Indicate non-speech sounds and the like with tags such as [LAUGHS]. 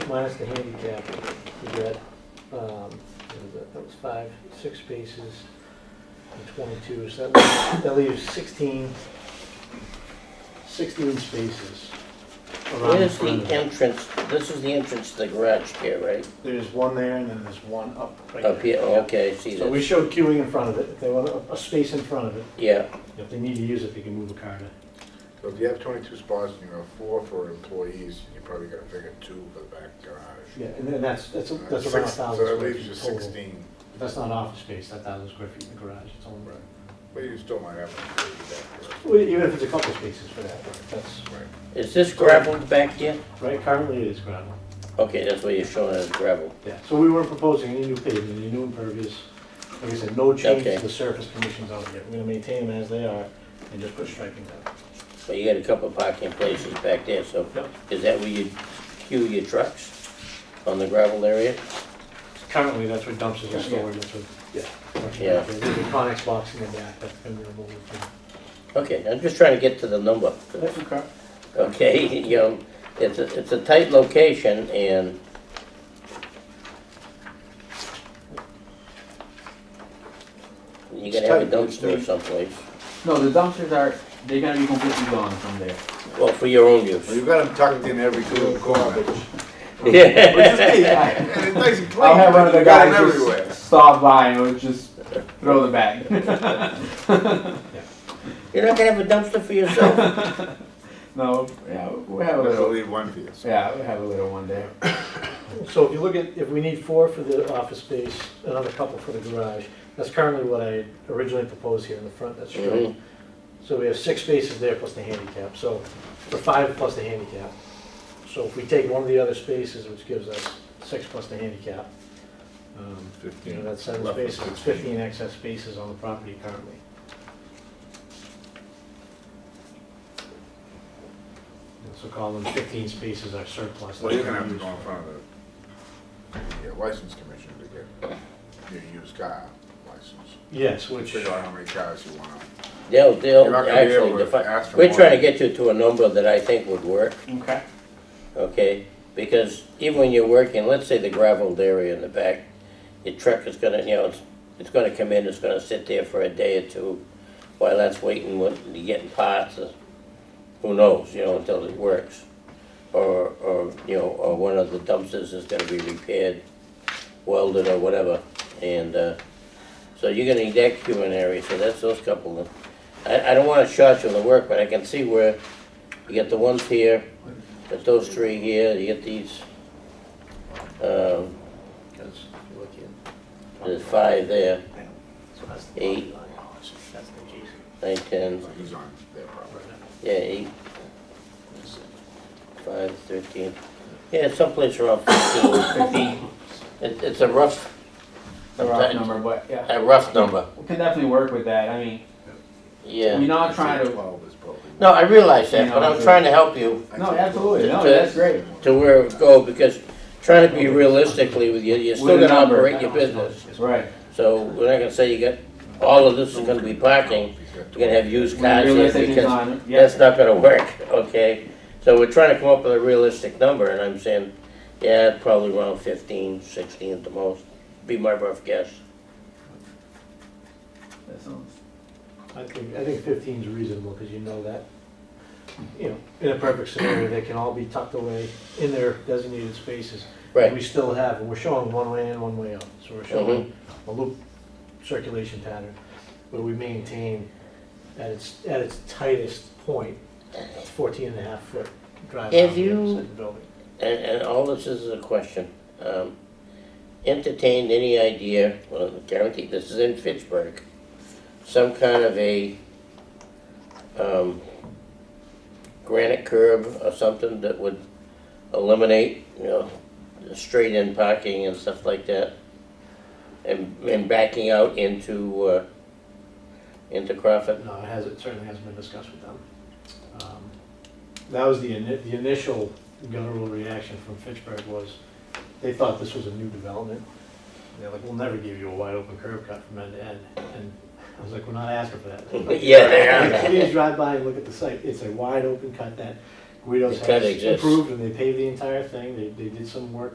minus the handicap, you got, um, what is that, that was five, six spaces, and twenty-two, so that leaves, that leaves sixteen, sixteen spaces around the Where's the front of it. entrance, this is the entrance to the garage here, right? There's one there, and then there's one up right Up here, there. oh, okay, see So we that, showed queuing in front of it, if they want a, a space in front of it, yeah, if they need to use it, they can move a car to. So if you have twenty-two spots and you have four for employees, you probably gotta figure two for the back garage. Uh, Yeah, and then that's, that's, a- that's Six- around a thousand So that square leaves you feet total. sixteen, That's not office space, that thousand square feet in the garage, it's only. Right. but you still might have one for the back Well, Even if it's a couple spaces for that, that's, garage. Right. is this gravel back here? right, currently it is gravel. Okay, that's what you're showing as gravel, Yeah, so we weren't proposing any new pavement, any new impervious, like I said, no change Okay. to the surface conditions out here. We're gonna maintain them as they are and just put striping down. but you got a couple parking places back there, so Yep. is that where you queue your trucks? On the gravel area? Currently, that's where dumpsters are stored, that's where, yeah. Yeah. There's a Conex box in the back, that's been removed. from- Okay, I'm just trying to get to the number. That's okay. Okay, you know, it's a, it's a tight location and you gotta have a It's dumpster tight, it's- someplace, No, the dumpsters are, they're gonna be completely gone from there. well, for your own [LAUGHS] Well, use. you've got them tucked in every cor- [LAUGHS] corner. Yeah, I- And it's nice and clean, I'll have one but of the you got them guys everywhere. just stop by and we'll just throw them back. you're not gonna have a dumpster for [LAUGHS] yourself, [LAUGHS] No, yeah, we'll have a I'll little, leave one for you. yeah, we'll have a little one there. So if you look at, if we need four for the office space, another couple for the garage, that's currently what I originally proposed here in the front, that's Mhm. true. So we have six spaces there plus the handicap, so, for five plus the handicap. So if we take one of the other spaces, which gives us six plus the handicap, um, you know, that's seven Roughly spaces, it's fifteen excess spaces on the property currently. And So call them fifteen spaces our surplus. Well, you're gonna have to go in front of the, the license commission to get your used car license. Yes, which. Figure out how many cars you want. they'll, You're they'll not gonna be able actually to define. ask for We're more trying to than- get you to a number that I think would work, Okay. okay? Because even when you're working, let's say the gravelled area in the back, your truck is gonna, you know, it's, it's gonna come in, it's gonna sit there for a day or two while that's waiting, what- getting parts, or who knows, you know, until it works. Or, or, you know, or one of the dumpsters is gonna be repaired, welded or whatever, and, uh, so you're gonna need that queuing area, so that's those couple of, I, I don't wanna short you on the work, but I can see where you get the ones here, got those three here, you get these, um, Because if you look in. there's five there, So that's the Eight. property line. That's the adjacent. nine, ten, So he's on their property. yeah, eight, five, thirteen. Yeah, it's someplace around fifteen. It, it's a rough, The rough Sometimes- number, but yeah, a rough number, we can definitely work with that. I mean, we're yeah. not I'd trying say to. Twelve is probably. No, I realize that, but I'm trying to help you I'd No, say absolutely. No, To- that's great. to where it go, because trying to be realistically with you, you're still With a gonna number. operate your business. That's right. So we're not gonna say you got, all of this is gonna be parking, 12. He's got you're gonna have used When cars the here, realistic is because on, That's yes, not gonna work, okay? So we're trying to come up with a realistic number, and I'm saying, yeah, probably around 15, 16 at the most, be my rough guess. that sounds I think, I think fifteen's reasonable, because you know that, you know, in a perfect scenario, they can all be tucked away in their designated spaces. Right, We still have, and we're showing one way in, one way out, so we're showing Mm-hmm. a loop circulation pattern, where we maintain at its, at its tightest point, a fourteen and a half foot drive. If around the you- outside the building. and, and all this is a question. Um, Entertained any idea, well, guaranteed, this is in Fitchburg, some kind of a um, granite curb or something that would eliminate, you know, the straight-in parking and stuff like that? And, and backing out into, uh, into Crawford? No, it has, it certainly hasn't been discussed with them. Um, That was the, ini- the initial guttural reaction from Fitchburg was, they thought this was a new development. They're like, we'll never give you a wide open curb cut from end to end, and I was like, we're not asking for that. [LAUGHS] [LAUGHS] Yeah, they are. Please drive by and look at the site, it's a wide open cut that Guido's It kinda has exists. improved and they paved the entire thing, they, they did some work